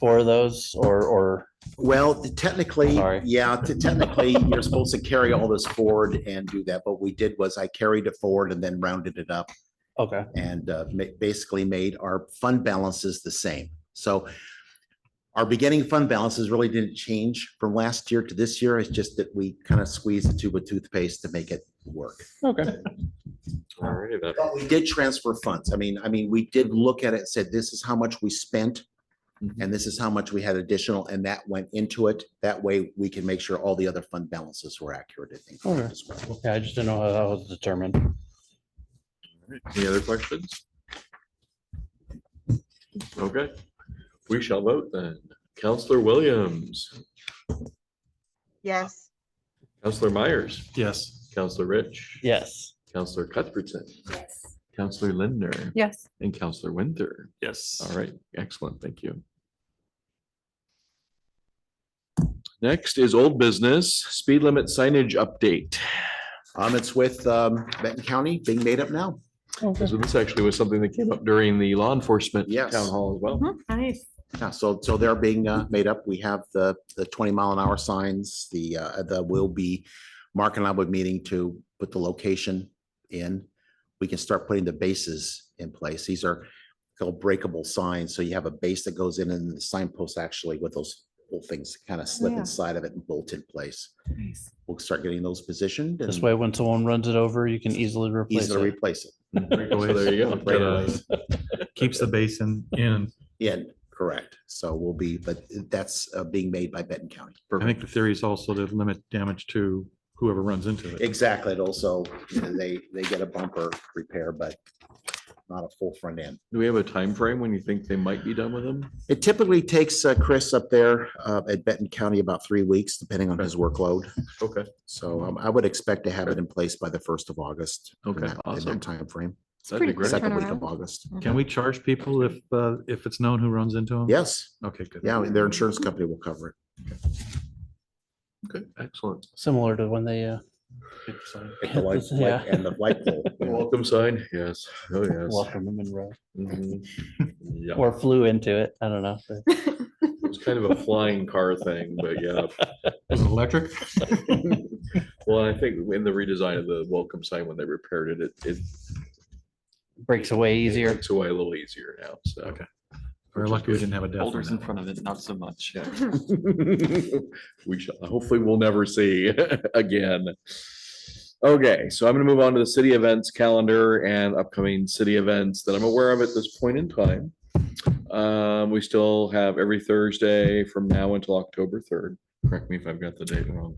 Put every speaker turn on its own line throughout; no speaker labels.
for those or, or,
Well, technically,
Sorry.
yeah, t- technically, you're supposed to carry all this forward and do that. What we did was I carried it forward and then rounded it up
okay,
and uh, ma- basically made our fund balances the same. So our beginning fund balances really didn't change from last year to this year. It's just that we kind of squeezed the tube of toothpaste to make it work.
okay.
Alrighty then.
But we did transfer funds. I mean, I mean, we did look at it, and said this is how much we spent. And this is how much we had additional and that went into it. That way we can make sure all the other fund balances were accurate. I think.
Okay.
as well.
Okay, I just didn't know how that was determined.
Any other questions? Okay, we shall vote then. Counselor Williams,
Yes.
Counselor Myers,
Yes.
Counselor Rich,
Yes.
Counselor Cuthbertson,
Yes.
Counselor Lindner,
Yes.
and Counselor Winter.
Yes.
All right, excellent, thank you. Next is old business, speed limit signage update.
Um, it's with, um, Benton County being made up now.
Oh,
This was- this actually was something that came up during the law enforcement
Yes.
town hall as well.
Mm-hmm.
Nice.
Yeah, so, so they're being uh, made up. We have the, the twenty mile an hour signs, the, uh, the will be, Mark and I would meeting to put the location in. We can start putting the bases in place. These are called breakable signs. So you have a base that goes in and the signpost actually with those little things kind of slip
yeah.
inside of it and bolt in place.
Nice.
We'll start getting those positioned
This
and
way, when someone runs it over, you can easily replace
easily
it.
replace it.
So Oh, there you go. uh,
Right away.
Keeps the basin in.
Yeah, correct. So we'll be, but that's uh, being made by Benton County.
I think the theory is also to limit damage to whoever runs into it.
Exactly. It also, you know, they, they get a bumper repair, but not a full front end.
Do we have a time frame when you think they might be done with them?
It typically takes uh, Chris up there uh, at Benton County about three weeks, depending on his workload.
Okay,
So um, I would expect to have it in place by the first of August. in
Okay,
that- In
awesome. Oh.
that timeframe,
that'd be
pretty
great.
second week of
Turnaround.
August.
Can we charge people if, uh, if it's known who runs into them?
Yes,
Okay, good.
yeah, their insurance company will cover it.
Okay, excellent.
Similar to when they, uh,
Like the light-
Yeah.
light- And the light pole. yeah.
Welcome sign, yes, oh, yes.
welcome to Monroe
Mhm. Yeah,
or flew into it. I don't know. but-
it was kind of a flying car thing, but yeah.
Was it electric?
Well, I think in the redesign of the welcome sign, when they repaired it, it, it
Breaks away easier.
breaks away a little easier now, so.
Okay. We're lucky we didn't have a death.
Boulders in front of it, not so much.
We shall, hopefully we'll never see again. Okay, so I'm gonna move on to the city events calendar and upcoming city events that I'm aware of at this point in time. Um, we still have every Thursday from now until October third, correct me if I've got the date wrong.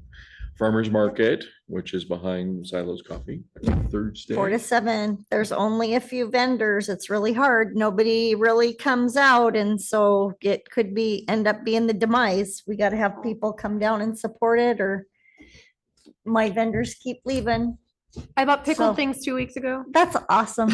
Farmer's Market, which is behind Silo's Coffee, Thursday.
Four to seven, there's only a few vendors, it's really hard, nobody really comes out, and so it could be, end up being the demise. We gotta have people come down and support it, or my vendors keep leaving,
I bought
So-
pickled things two weeks ago.
that's awesome.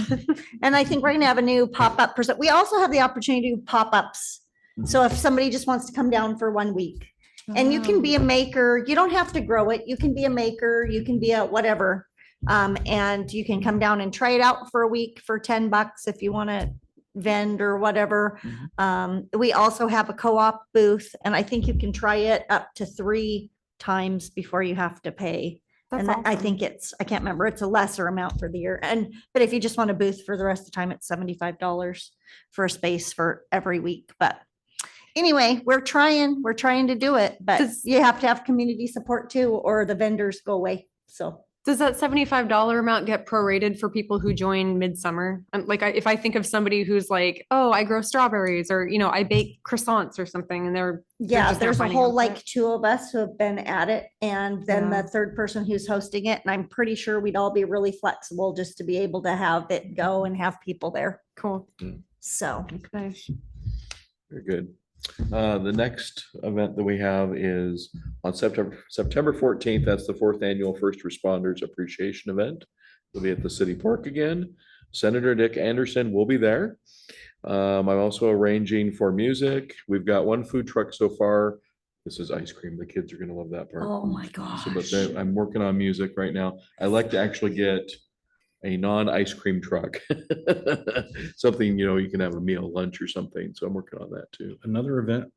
And I think we're gonna have a new pop-up present, we also have the opportunity to do pop-ups. So if somebody just wants to come down for one week, and you can be a maker, you don't have to grow it, you can be a maker, you can be a whatever. Um, and you can come down and try it out for a week for ten bucks if you want to vend or whatever. Um, we also have a co-op booth and I think you can try it up to three times before you have to pay.
That's
And I- I
awesome.
think it's, I can't remember, it's a lesser amount for the year. And, but if you just want a booth for the rest of the time, it's seventy-five dollars for a space for every week, but anyway, we're trying, we're trying to do it, but
Does-
you have to have community support too, or the vendors go away, so.
Does that seventy-five dollar amount get prorated for people who join midsummer? Um, like, I- if I think of somebody who's like, oh, I grow strawberries or, you know, I bake croissants or something and they're,
Yeah,
just not
there's a
finding out
whole
for
like
it.
two of us who have been at it and then
Yeah.
the third person who's hosting it. And I'm pretty sure we'd all be really flexible just to be able to have it go and have people there.
cool.
So
Okay.
Very good. Uh, the next event that we have is on September, September fourteenth, that's the fourth annual First Responders Appreciation Event. It'll be at the city park again. Senator Dick Anderson will be there. Um, I'm also arranging for music. We've got one food truck so far. This is ice cream. The kids are gonna love that part.
Oh my
So, but
gosh.
they- I'm working on music right now. I like to actually get a non-ice cream truck. Something, you know, you can have a meal, lunch or something. So I'm working on that too.
Another event